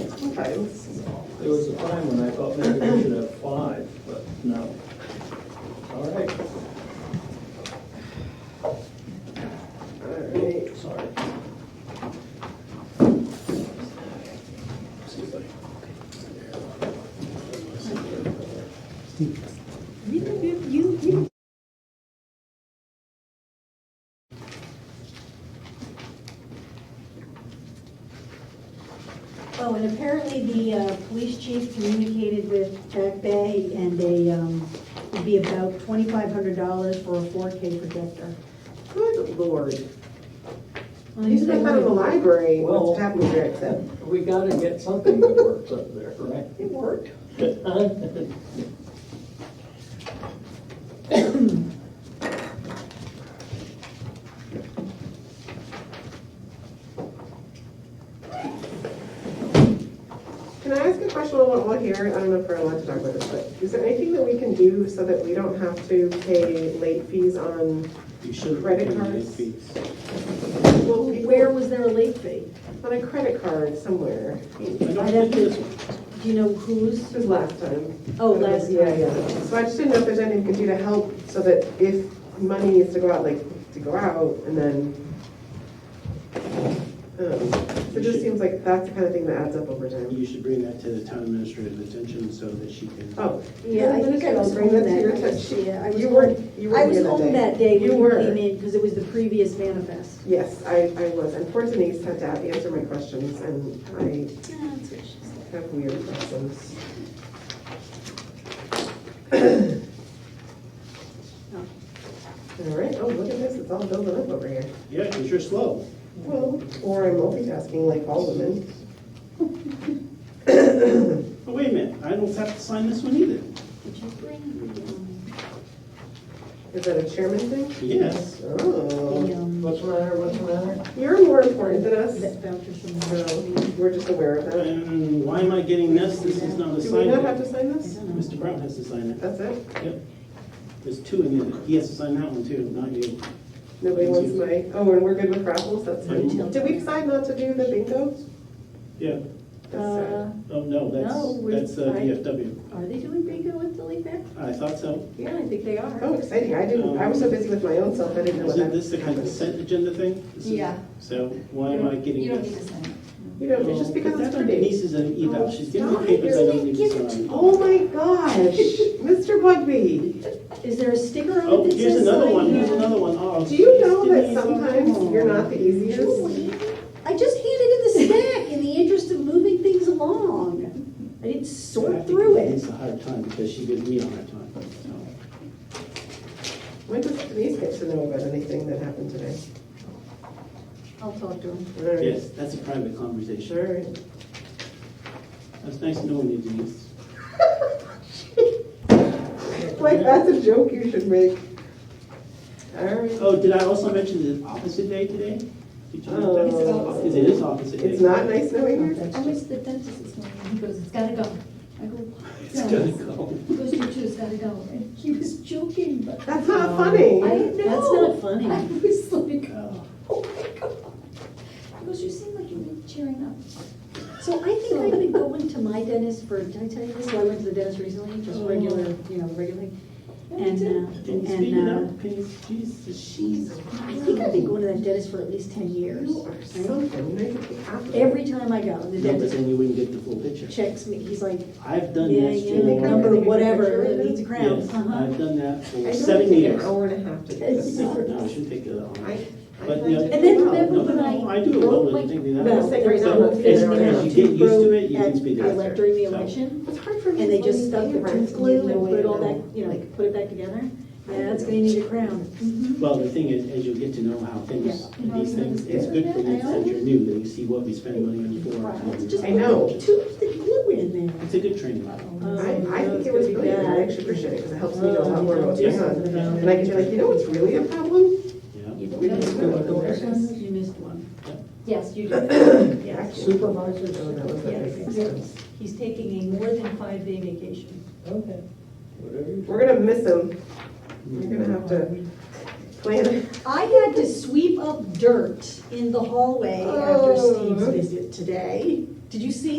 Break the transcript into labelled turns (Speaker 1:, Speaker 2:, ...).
Speaker 1: Okay, this is all.
Speaker 2: There was a time when I thought maybe we should have five, but no. All right,
Speaker 1: Alright.
Speaker 2: sorry.
Speaker 1: You, you, you, you.
Speaker 3: Oh, and apparently the uh, police chief communicated with Jack Bay and they, um, it'd be about twenty-five hundred dollars for a four K projector.
Speaker 1: Good lord.
Speaker 3: Well,
Speaker 1: You step out of the library,
Speaker 2: Well-
Speaker 1: what's happening there except
Speaker 2: We gotta get something that works up there, right?
Speaker 1: it worked. Can I ask a question while we're all here? I don't know if we're allowed to talk about this, but is there anything that we can do so that we don't have to pay late fees on,
Speaker 2: You should.
Speaker 1: Credit
Speaker 2: pay late
Speaker 1: cards?
Speaker 2: fees.
Speaker 1: well,
Speaker 3: Where
Speaker 1: where,
Speaker 3: was there a late fee?
Speaker 1: on a credit card somewhere?
Speaker 2: I don't think this one.
Speaker 3: Do you know whose?
Speaker 1: This was last time.
Speaker 3: Oh, last
Speaker 1: Yeah,
Speaker 3: year.
Speaker 1: yeah. So I just didn't know if there's anything we could do to help so that if money needs to go out, like, to go out and then. um, So it just seems like that's the kind of thing that adds up over time.
Speaker 4: You should bring that to the town administrator's attention so that she can.
Speaker 1: Oh.
Speaker 3: Yeah, I think I was
Speaker 1: Bring
Speaker 3: home
Speaker 1: that to your
Speaker 3: that,
Speaker 1: attention.
Speaker 3: yeah, I was
Speaker 1: You weren't,
Speaker 3: home,
Speaker 1: you
Speaker 3: I
Speaker 1: weren't
Speaker 3: was
Speaker 1: here that day.
Speaker 3: home that day when
Speaker 1: You
Speaker 3: you
Speaker 1: were.
Speaker 3: came in because it was the previous manifest.
Speaker 1: Yes, I, I was. Unfortunately, you had to answer my questions and I have weird questions.
Speaker 3: Oh.
Speaker 1: All right, oh, look at this, it's all building up over here.
Speaker 4: Yeah, because you're slow.
Speaker 1: Well, or I'm multitasking like all women.
Speaker 4: But wait a minute, I don't have to sign this one either.
Speaker 3: Did you bring the, um,
Speaker 1: Is that a chairman thing?
Speaker 4: Yes.
Speaker 3: the,
Speaker 1: Oh,
Speaker 3: um,
Speaker 5: What's the matter, what's the matter?
Speaker 1: you're more important than
Speaker 6: um,
Speaker 1: us.
Speaker 3: that voucher from
Speaker 1: No,
Speaker 3: the?
Speaker 1: we're just aware of that.
Speaker 4: And why am I getting this? This is not
Speaker 1: Do we not have
Speaker 4: assigned.
Speaker 1: to sign this?
Speaker 4: Mr. Brown has to sign it.
Speaker 1: That's it?
Speaker 4: Yep. There's two in there. He has to sign that one too, not you.
Speaker 1: Nobody wants my, oh, and we're good with raffles, that's
Speaker 4: Yeah.
Speaker 1: it. Did we decide not to do the bingo?
Speaker 4: Yeah.
Speaker 1: That's
Speaker 3: Uh,
Speaker 1: sad.
Speaker 4: Oh, no,
Speaker 3: No, we-
Speaker 4: that's, that's uh,
Speaker 3: I-
Speaker 4: VFW.
Speaker 3: Are they doing bingo at the Lake Fair?
Speaker 4: I thought so.
Speaker 3: Yeah, I think they are.
Speaker 1: Oh, exciting, I didn't, I was so busy with my own self, I didn't know what
Speaker 4: Isn't this the
Speaker 1: that
Speaker 4: kind of
Speaker 1: happened.
Speaker 4: consent agenda thing? This is-
Speaker 6: Yeah.
Speaker 4: So why am I getting
Speaker 6: You don't need
Speaker 4: this?
Speaker 6: to sign it.
Speaker 1: You know, it's just because it's
Speaker 4: That's on
Speaker 1: pretty.
Speaker 4: Denise's
Speaker 1: Oh,
Speaker 4: eval. She's getting the
Speaker 1: stop.
Speaker 4: papers I
Speaker 1: You're
Speaker 4: don't need to sign.
Speaker 1: Oh my gosh, Mr. Bugby,
Speaker 3: Is there a sticker on
Speaker 4: Oh,
Speaker 3: it that
Speaker 4: here's
Speaker 3: says uh,
Speaker 4: another
Speaker 3: sign
Speaker 4: one,
Speaker 3: here?
Speaker 4: here's another one. Oh,
Speaker 1: do you
Speaker 4: geez,
Speaker 1: know that
Speaker 4: Denise, oh, come
Speaker 1: sometimes
Speaker 4: on.
Speaker 1: you're not the easiest?
Speaker 3: Julie, I just handed in the stack in the interest of moving things along. I didn't
Speaker 4: I
Speaker 3: sort
Speaker 4: think
Speaker 3: through it.
Speaker 4: Denise a hard time because she gives me a hard time. so.
Speaker 1: When does Denise get to know about anything that happened today?
Speaker 3: I'll talk to him.
Speaker 1: All right.
Speaker 4: Yes, that's a private conversation.
Speaker 1: All right.
Speaker 4: That's nice knowing you, Denise.
Speaker 1: Like, that's a joke you should make. All right.
Speaker 4: Oh, did I also mention the opposite day today? Did you note that?
Speaker 1: Oh.
Speaker 4: Because it is opposite day.
Speaker 1: It's not nice knowing
Speaker 3: Oh,
Speaker 1: her.
Speaker 6: I wish the dentist was knowing, he goes, it's gotta go. I go, why?
Speaker 4: It's gonna go.
Speaker 6: He goes, you too, it's gotta go. And he was joking, but
Speaker 1: That's not funny.
Speaker 6: I know.
Speaker 3: That's not funny.
Speaker 6: I was like, oh my god. He goes, you seem like you're cheering up.
Speaker 3: So I think I've been going to my dentist for, did I tell you this? So I went to the dentist recently, just
Speaker 6: Oh.
Speaker 3: regular, you know, regularly.
Speaker 6: Yeah, me
Speaker 3: And,
Speaker 6: too.
Speaker 3: uh,
Speaker 4: Denise, speak it
Speaker 3: and, uh,
Speaker 4: up, please. Jesus, Jesus.
Speaker 3: I think I've been going to that dentist for at least ten years.
Speaker 1: You are something, you make me happy.
Speaker 3: Every time I go, the
Speaker 4: No, but
Speaker 3: dentist
Speaker 4: then you wouldn't get the full picture.
Speaker 3: checks me, he's like,
Speaker 4: I've done
Speaker 3: yeah,
Speaker 4: this
Speaker 3: yeah, the number
Speaker 4: for,
Speaker 3: of whatever,
Speaker 1: Yes.
Speaker 3: it needs a crown.
Speaker 4: yes,
Speaker 3: Uh-huh.
Speaker 4: I've done that
Speaker 1: I
Speaker 4: for
Speaker 1: don't
Speaker 4: seven
Speaker 1: think An
Speaker 4: years.
Speaker 1: hour and a half to do this.
Speaker 3: It's-
Speaker 4: No, I shouldn't take that on.
Speaker 1: I, I'd
Speaker 4: But,
Speaker 1: like
Speaker 4: yeah.
Speaker 3: And
Speaker 1: to
Speaker 3: then
Speaker 1: do well.
Speaker 3: remember when I.
Speaker 4: No, I do it well
Speaker 3: broke
Speaker 4: when
Speaker 3: my-
Speaker 4: you think that.
Speaker 3: Well,
Speaker 1: I'm saying right
Speaker 3: there
Speaker 1: now,
Speaker 3: was
Speaker 1: I'm
Speaker 3: a fist
Speaker 1: figuring
Speaker 3: and
Speaker 1: out
Speaker 3: a
Speaker 1: you
Speaker 4: get used to
Speaker 3: toothbroke
Speaker 4: it, you can
Speaker 3: at-
Speaker 4: speed it
Speaker 3: I left
Speaker 4: up there.
Speaker 3: during the
Speaker 4: So-
Speaker 3: election,
Speaker 1: It's hard for me.
Speaker 3: and they
Speaker 1: to
Speaker 3: just
Speaker 1: believe
Speaker 3: stuck the
Speaker 1: favorites,
Speaker 3: tooth
Speaker 1: you
Speaker 3: glue
Speaker 1: know,
Speaker 3: and put it all
Speaker 1: you know.
Speaker 3: back, you know, like, put it back together. Yeah, it's gonna need a crown.
Speaker 6: Mm-hmm.
Speaker 4: Well, the thing is, as you get to know how things,
Speaker 6: Yeah.
Speaker 4: these things, it's good for you since you're new, that you see what we spend money on for.
Speaker 3: It's just
Speaker 1: I know.
Speaker 3: put Tooth and glue in there.
Speaker 4: It's a good training model.
Speaker 3: Um,
Speaker 1: I, I think it was brilliant, and I actually appreciate it, because it helps me know a lot more about what's
Speaker 4: Yes.
Speaker 1: going on. And I can be like, you know what's really a problem?
Speaker 4: Yeah.
Speaker 3: You
Speaker 1: We don't
Speaker 3: missed
Speaker 1: know what
Speaker 3: one.
Speaker 1: there is.
Speaker 3: You missed one,
Speaker 6: Yes, you do.
Speaker 1: Yeah.
Speaker 5: Supervisors
Speaker 1: Oh,
Speaker 5: or
Speaker 1: that was a
Speaker 3: Yes.
Speaker 1: big difference.
Speaker 3: he's taking a more than five day vacation.
Speaker 5: Okay.
Speaker 2: Whatever you.
Speaker 1: We're gonna miss him. You're gonna have to plan it.
Speaker 3: I had to sweep up dirt in the hallway after
Speaker 1: Oh.
Speaker 3: Steve's visit today. Did you see